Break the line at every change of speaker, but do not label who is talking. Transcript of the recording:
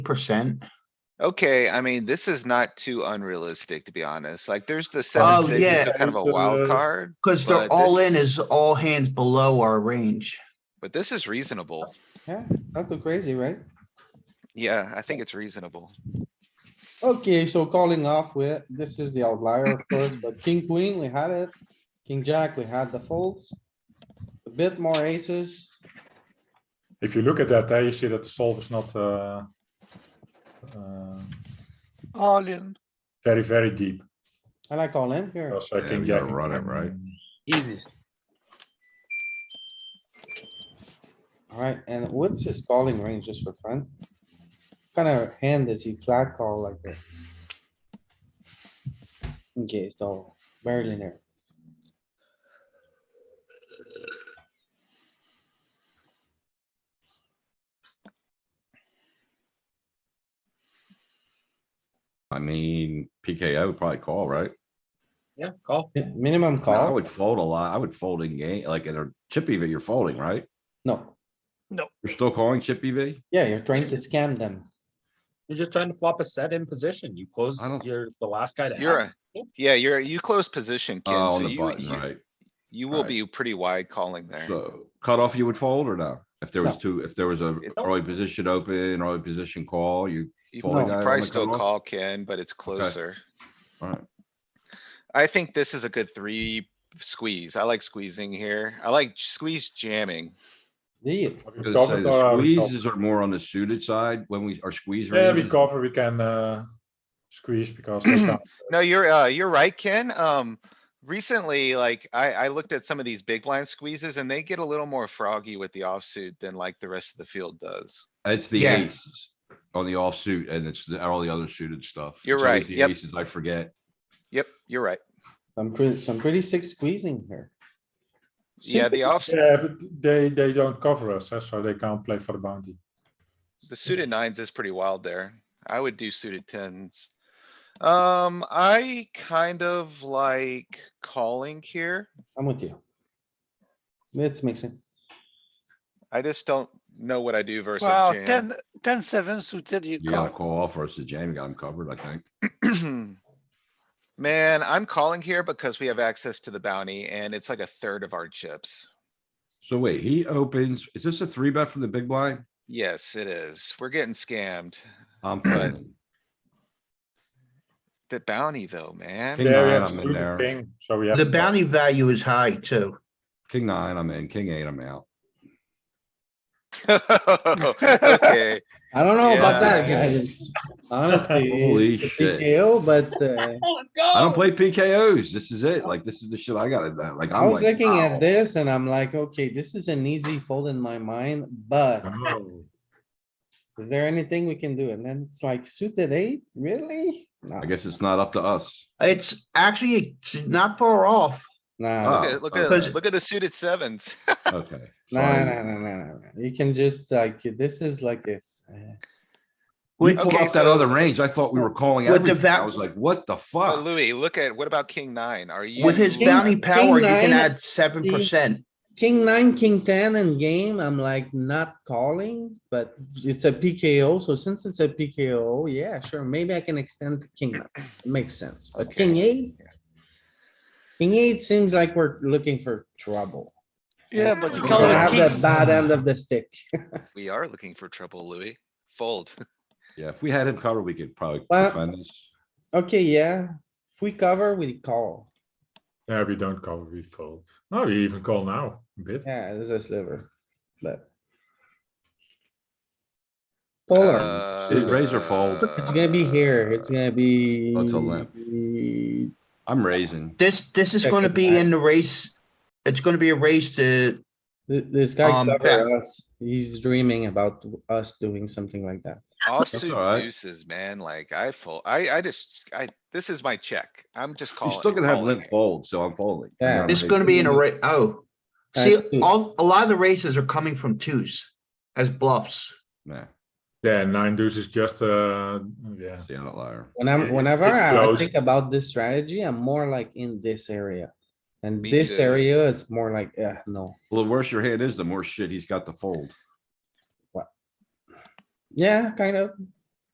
percent.
Okay, I mean, this is not too unrealistic, to be honest. Like, there's the
Oh,
seven, six is
yeah.
a kind of a wild
Deuces.
card,
Cause they're
But
all
this-
in is all hands below our range.
but this is reasonable.
Yeah, not too crazy, right?
Yeah, I think it's reasonable.
Okay, so calling off with, this is the outlier, of course, but king, queen, we had it. King, jack, we had the folds. A bit more aces.
If you look at that, there you see that the solve is not uh, uh,
All in.
very, very deep.
I like all in here.
Because I
Yeah,
think
we gotta
Jack-
run it, right?
Easiest.
Alright, and what's his calling range just for fun? Kind of hand does he flat call like this? Okay, so very linear.
I mean, PKO would probably call, right?
Yeah, call.
Mi- Minimum
I mean, I
call?
would fold a lot. I would fold in game, like in a chip EV, you're folding, right?
No.
You're still calling chip E EV?
Yeah, you're trying to scam them.
You're just trying to flop a set in position. You close,
I don't-
you're the last guy to.
You're
act.
a, yeah, you're, you close position,
Oh,
Ken, so
on the
you,
button,
you,
right?
you will
right.
be pretty wide calling there.
So cutoff, you would fold or no? If there was
No.
two, if there was a
It-
early position open, early position call, you,
You
fold
you
a guy
on
probably
the
still
cutoff?
call Ken, but it's closer.
alright,
I think this is a good three squeeze. I like squeezing here. I like squeeze jamming.
Do you?
Are we covered
gonna say
or
the
are we covered?
squeezes are more on the suited side when we are squeeze
Yeah, we
ranges.
cover, we can uh, squeeze because they can't-
No, you're, uh, you're right, Ken. Um, recently, like, I, I looked at some of these big blind squeezes and they get a little more froggy with the offsuit than like the rest of the field does.
It's the
Yeah.
aces on the offsuit and it's the- all the other suited stuff.
You're
It's always
right,
the
yep.
Aces, I forget.
Yep, you're right.
Some pretty, some pretty sick squeezing here.
Yeah, the
Simple-
off,
Yeah, but they, they don't cover us, eh, so they can't play for the bounty.
the suited nines is pretty wild there. I would do suited tens. Um, I kind of like calling here.
I'm with you. Let's mix it.
I just don't know what I do versus
Wow,
jam.
ten, ten seven suited, you
You gotta
call.
call off versus jam, you got them covered, I think.
Man, I'm calling here because we have access to the bounty and it's like a third of our chips.
So wait, he opens, is this a three bet from the big blind?
Yes, it is. We're getting scammed.
I'm
Right.
folding.
The bounty though, man.
King
Yeah, we
nine,
have
I'm in
suited
there.
king, so we have.
The
to-
bounty value is high too.
King nine, I'm in, king eight, I'm out.
Okay,
I don't know about that,
Yeah.
guys. Honestly. it's
Holy
the
shit.
PKO, but uh,
I don't play PKOs. This is it. Like, this is the shit I got in that. Like,
I
I'm
was
like,
looking
wow.
at this and I'm like, okay, this is an easy fold in my mind, but
Oh.
is there anything we can do? And then it's like suited eight, really? Nah,
I guess it's not up to us.
It's actually, it's not far off.
Nah,
Ah.
look
Oh,
at, look
okay.
at, look at the suited sevens.
Okay.
nah,
sorry.
nah, nah, nah, nah, nah. You can just like, this is like this. uh,
We
With,
pulled
Okay,
up that
so-
other range. I thought we were calling
With the
everything. I
va-
was like, what the
But
fuck?
Louis, look at, what about king nine? Are you?
with his
King-
bounty power, you
nine,
can add
see-
seven percent.
King nine, king ten in game, I'm like not calling, but it's a PKO, so since it's a PKO, yeah, sure, maybe I can extend to king nine. It Makes sense, but king eight? King eight seems like we're looking for trouble.
Yeah, but you
Okay.
We
call
Color
have
with
the
kings.
bad end of the stick.
We are looking for trouble, Louis. Fold.
Yeah, if we had him covered, we could probably
Well-
defend this.
Okay, yeah, if we cover, we call.
Yeah, we don't cover, we fold. No, we even call now, a bit.
Yeah, this is a sliver, but.
Uh,
Polar,
Suited raise or fold?
Uh,
it's gonna be here, it's gonna be.
That's a limp. I'm raising.
This, this is
Check
gonna
it
be
out.
in the race. It's gonna be a race to,
Th- This guy
Um,
covered us. He's dreaming about us doing something like that.
Offsuit
alright.
deuces, man, like I fold, I, I just, I, this is my check. I'm just
You
calling.
still
it,
gonna have
calling
limp
it.
fold, so I'm folding. I
Yeah.
got him
it's gonna be in a
raising.
ra- oh. See,
Nice too.
all, a lot of the races are coming from twos as bluffs.
Nah,
Yeah, nine deuce is just, uh, yeah.
it's the outlier.
When I'm,
it-
whenever
it's
I
close.
think about this strategy, I'm more like in this area. And
Me
this
too.
area is more like, uh, no.
Well, the worse your hand is, the more shit he's got to fold.
Yeah, kind of.